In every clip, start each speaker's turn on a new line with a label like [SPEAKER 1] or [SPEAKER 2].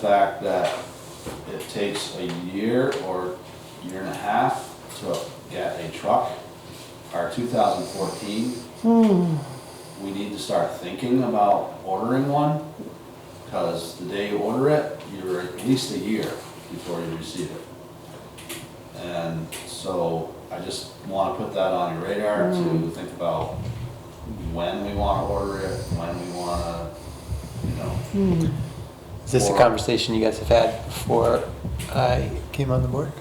[SPEAKER 1] the fact that it takes a year or year and a half to get a truck, our 2014, we need to start thinking about ordering one, because the day you order it, you're at least a year before you receive it. And so I just want to put that on your radar to think about when we want to order it, when we want to, you know,
[SPEAKER 2] Is this a
[SPEAKER 1] Or-
[SPEAKER 2] conversation you guys have had before I came on the board?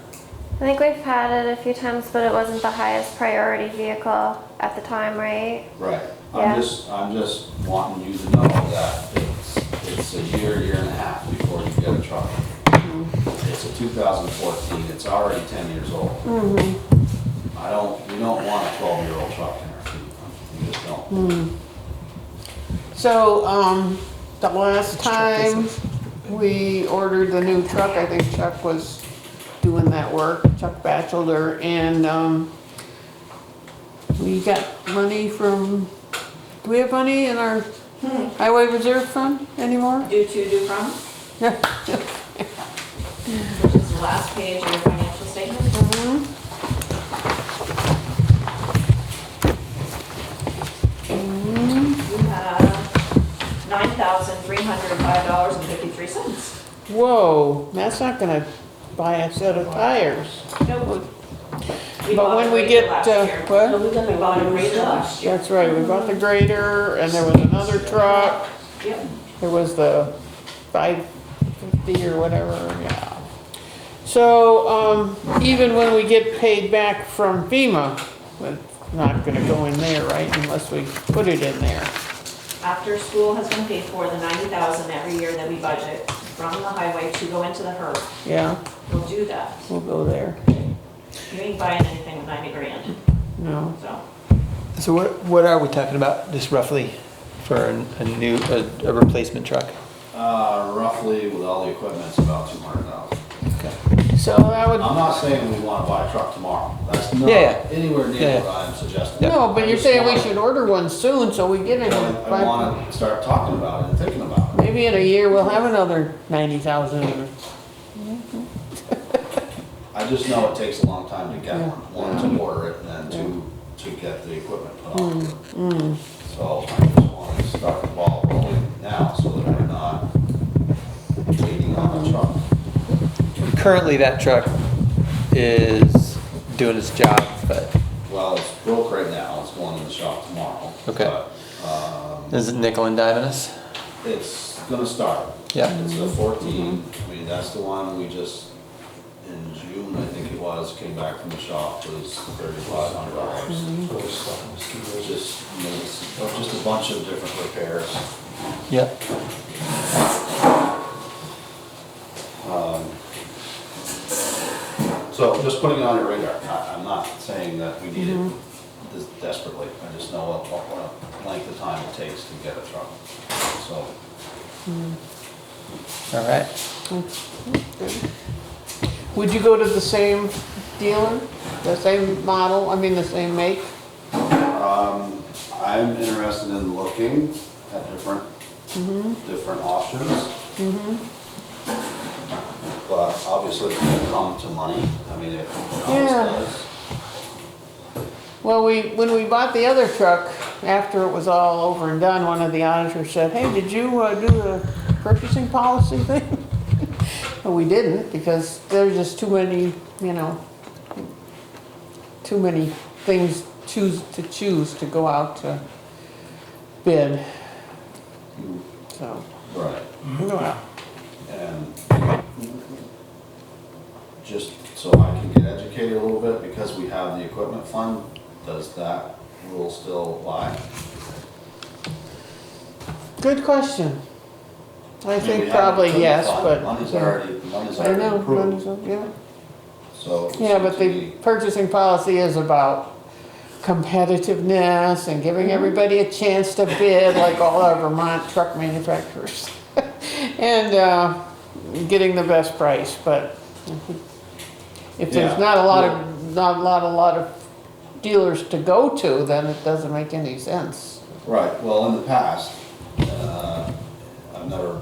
[SPEAKER 3] I think we've had it a few times, but it wasn't the highest priority vehicle at the time, right?
[SPEAKER 1] Right,
[SPEAKER 3] Yeah.
[SPEAKER 1] I'm just, I'm just wanting you to know that it's, it's a year, year and a half before you get a truck.
[SPEAKER 4] Mm-hmm.
[SPEAKER 1] It's a two thousand fourteen, it's already ten years old.
[SPEAKER 4] Mm-hmm.
[SPEAKER 1] I don't, we don't want a twelve-year-old truck in our fleet, we just
[SPEAKER 4] Mm.
[SPEAKER 1] don't.
[SPEAKER 4] So, um, the last
[SPEAKER 2] truck is
[SPEAKER 4] time we ordered the new truck, I think Chuck was doing that work, Chuck Batchelder, and, um, we got money from, do we have money in our highway reserve fund anymore?
[SPEAKER 5] Due to, due from,
[SPEAKER 4] Yeah.
[SPEAKER 5] which is the last page of your financial statement.
[SPEAKER 4] Mm-hmm.
[SPEAKER 5] You have nine thousand three hundred and five dollars and fifty-three cents.
[SPEAKER 4] Whoa, that's not gonna buy a set of tires.
[SPEAKER 5] Nope.
[SPEAKER 4] But when we get, uh,
[SPEAKER 5] We
[SPEAKER 4] what?
[SPEAKER 5] bought a Razor last year.
[SPEAKER 4] That's right, we bought the grader, and there was another truck.
[SPEAKER 5] Yep.
[SPEAKER 4] It was the five fifty or whatever, yeah. So, um, even when we get paid back from FEMA, it's not gonna go in there, right, unless we put it in there.
[SPEAKER 5] After school has been paid for, the ninety thousand every year that we budget from the highway to go into the HERB,
[SPEAKER 4] Yeah,
[SPEAKER 5] we'll do that.
[SPEAKER 4] we'll go there,
[SPEAKER 5] You ain't buying anything with ninety grand,
[SPEAKER 4] no.
[SPEAKER 5] so.
[SPEAKER 2] So what, what are we talking about, just roughly, for an- a new, a- a replacement truck?
[SPEAKER 1] Uh, roughly with all the equipment, it's about two hundred thousand.
[SPEAKER 2] Okay.
[SPEAKER 4] So that would,
[SPEAKER 1] I'm not saying we wanna buy a truck tomorrow, that's not
[SPEAKER 2] Yeah, yeah.
[SPEAKER 1] anywhere
[SPEAKER 2] Yeah,
[SPEAKER 1] near
[SPEAKER 2] yeah.
[SPEAKER 1] what I'm suggesting.
[SPEAKER 4] no, but
[SPEAKER 1] I
[SPEAKER 4] you're
[SPEAKER 1] just
[SPEAKER 4] saying we
[SPEAKER 1] want-
[SPEAKER 4] should order one soon, so we get it.
[SPEAKER 1] I
[SPEAKER 4] by-
[SPEAKER 1] wanna start talking about it and thinking about it.
[SPEAKER 4] Maybe in a year, we'll have another ninety thousand.
[SPEAKER 1] I just know it takes a long time to get
[SPEAKER 4] Yeah.
[SPEAKER 1] one, one to order it and then two, to get the equipment put on. So I just want to start the ball rolling now so that we're not waiting on the truck.
[SPEAKER 2] Currently, that truck is doing its job, but
[SPEAKER 1] Well, it's broke right now, it's going in the shop tomorrow.
[SPEAKER 2] Okay.
[SPEAKER 1] but, um,
[SPEAKER 2] is it nickel and diming us?
[SPEAKER 1] It's gonna start.
[SPEAKER 2] Yeah.
[SPEAKER 1] It's a fourteen, I mean, that's the one we just, in June, I think it was, came back from the shop, was thirty-five hundred dollars. Just, you know, it's Oh, just a bunch of different repairs.
[SPEAKER 2] Yep.
[SPEAKER 1] So just putting it on your radar, I, I'm not saying that we need it this desperately, I just know what, what- what length of time it takes to get a truck, so.
[SPEAKER 2] All right.
[SPEAKER 4] Would you go to the same dealer, the same model, I mean, the same make?
[SPEAKER 1] Um, I'm interested in looking at different, different options. But obviously it's gonna come to money, I mean, it always
[SPEAKER 4] Yeah.
[SPEAKER 1] does.
[SPEAKER 4] Well, we, when we bought the other truck, after it was all over and done, one of the auditors said, hey, did you uh, do the purchasing policy thing? And we didn't, because there's just too many, you know, too many things choose, to choose to go out to bid. So,
[SPEAKER 1] Right.
[SPEAKER 4] well,
[SPEAKER 1] And just so I can get educated a little bit, because we have the equipment fund, does that rule still apply?
[SPEAKER 4] good question. I
[SPEAKER 1] mean, we
[SPEAKER 4] think
[SPEAKER 1] have
[SPEAKER 4] probably
[SPEAKER 1] equipment
[SPEAKER 4] yes,
[SPEAKER 1] fund,
[SPEAKER 4] but.
[SPEAKER 1] Money's
[SPEAKER 4] yeah.
[SPEAKER 1] already, money's
[SPEAKER 4] I
[SPEAKER 1] already
[SPEAKER 4] know,
[SPEAKER 1] approved,
[SPEAKER 4] money's- yeah.
[SPEAKER 1] so. it
[SPEAKER 4] Yeah, but
[SPEAKER 1] seems
[SPEAKER 4] the
[SPEAKER 1] to me-
[SPEAKER 4] purchasing policy is about competitiveness and giving everybody a chance to bid, like all our Vermont truck manufacturers. And, uh, getting the best price, but if there's
[SPEAKER 1] Yeah.
[SPEAKER 4] not a lot of, not a lot, a lot of dealers to go to, then it doesn't make any sense.
[SPEAKER 1] Right, well, in the past, uh, I've never